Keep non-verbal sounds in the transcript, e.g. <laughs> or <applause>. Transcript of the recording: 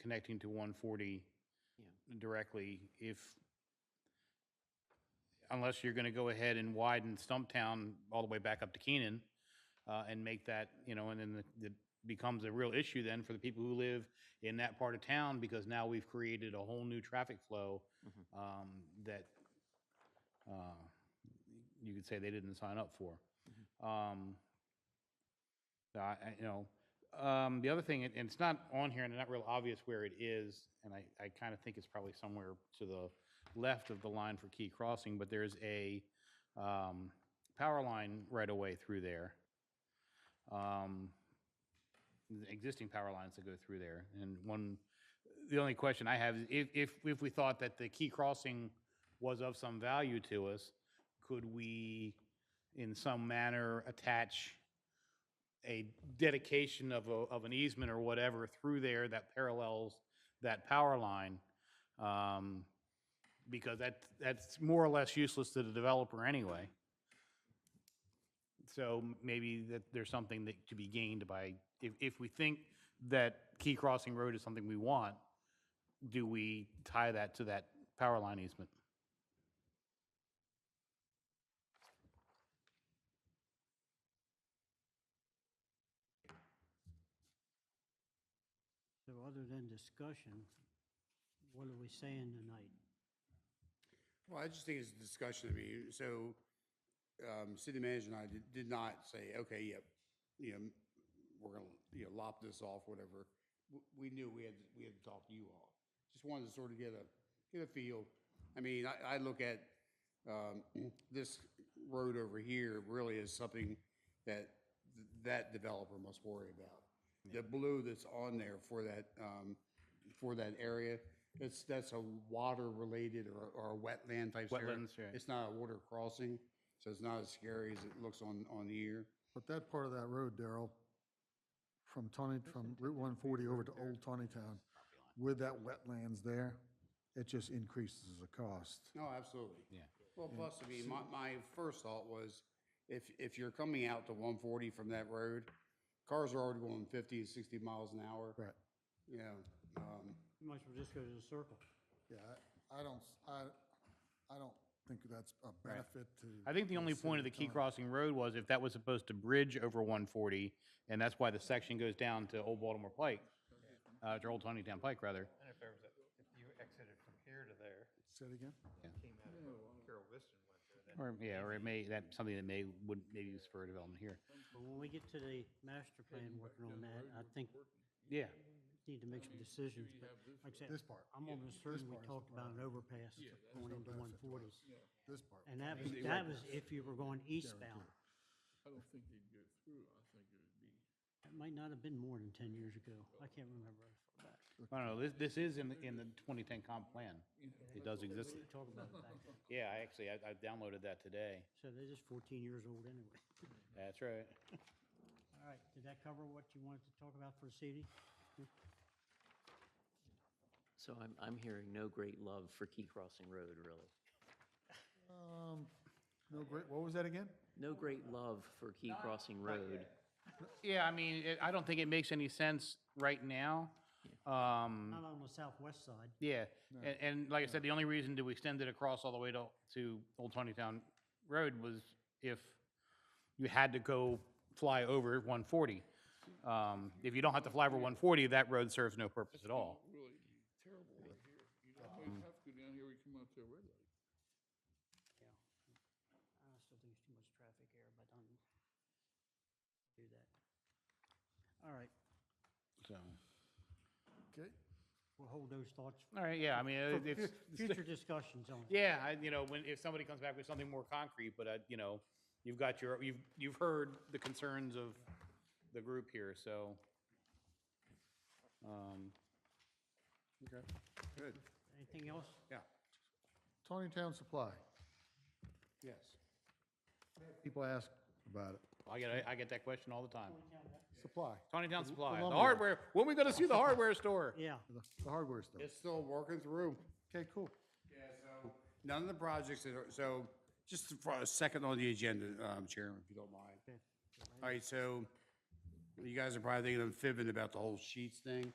connecting to 140 Yeah. directly if, unless you're going to go ahead and widen Stumptown all the way back up to Keenan uh, and make that, you know, and then the- the becomes a real issue then for the people who live in that part of town because now we've created a whole new traffic flow um, that uh, you could say they didn't sign up for. Um, I- I- You know, um, the other thing, and and it's not on here and not real obvious where it is, and I, I kind of think it's probably somewhere to the left of the line for Key Crossing, but there's a um, power line right away through there. Um, the Existing power lines that go through there. And one, the only question I have is if, if, if we thought that the Key Crossing was of some value to us, could we in some manner attach a dedication of a, of an easement or whatever through there that parallels that power line. Um, because that, that's more or less useless to the developer anyway. So maybe that there's something that to be gained by, if, if we think that Key Crossing Road is something we want, do we tie that to that power line easement? So other than discussion, what are we saying tonight? Well, I just think it's a discussion, I mean, so, um, city manager and I did, did not say, okay, yep, you know, we're gonna, you know, lop this off, whatever. W- We knew we had, we had to talk to you all. Just wanted to sort of get a, get a feel. I mean, I, I look at, um, this road over here really is something that, th- that developer must worry about. The blue that's on there for that, um, for that area, that's, that's a water-related or, or a wetland type area. Wetlands, right. It's not a water crossing, so it's not as scary as it looks on, on the ear. But that part of that road, Daryl, from Tawny, from Route 140 over to Old Tawny Town, with that wetlands there, it just increases the cost. No, absolutely. Yeah. Well, plus, I mean, my, my first thought was, if, if you're coming out to 140 from that road, cars are already going 50 and 60 miles an hour. Right. You know, um, You might as well just go to the circle. Yeah, I I don't, I, I don't think that's a benefit to. I think the only point of the Key Crossing Road was if that was supposed to bridge over 140, and that's why the section goes down to Old Baltimore Pike, uh, to Old Tonytown Pike, rather. And if there was, a- if you exited from here to there, Say it again? came out of Carol Whiston went through that. Or, yeah, or it may, that's something that may, would maybe spur development here. But when we get to the master plan working on that, I think Yeah, we need to make some decisions. But like I said, This part. I'm almost certain we talked about an overpass going into one forty. This part. And that was, that was if you were going eastbound. I don't think they'd go through. I think it would be, It might not have been more than ten years ago. I can't remember. how far back. I don't know, this, this is in, the in the 2010 comp plan. It does exist. We talked about it back then. Yeah, I actually, I I downloaded that today. So they're just fourteen years old anyway. That's right. All right, did that cover what you wanted to talk about for this evening? So I'm, I'm hearing no great love for Key Crossing Road, really. Um, No, great, what was that again? No great love for Key Crossing Road. Yeah, I mean, it- I don't think it makes any sense right now. Um, Mm. Not on the southwest side. Yeah, and, and like I said, the only reason to extend it across all the way to, to Old Tawny Town Road was if you had to go fly over 140. Um, If you don't have to fly over 140, that road serves no purpose at all. really terrible right here. You'd almost have to go down here, we come out to a red light. Yeah. I still think it's too much traffic here, but I'm, do that. All right, So, Okay, we'll hold those thoughts all right, yeah, I mean, for it- <laughs> fu- it's, future discussions on it. yeah, I, you know, when, if somebody comes back with something more concrete, but, uh, you know, you've got your, you've, you've heard the concerns of the group here, so. um, okay. good, Anything else? yeah, Tawny Town Supply, yes. people ask about it. I get, I get that question all the time. Supply, Tawny Town Supply, the lumber. hardware, when we gonna see the hardware store? Yeah, the the hardware stuff. It's still working through. Okay, cool. Yeah, so. None of the projects that are, so, just for a second on the agenda, um, Chairman, if you don't mind. okay. All right, so you guys are probably thinking I'm fibbing about the whole sheets thing.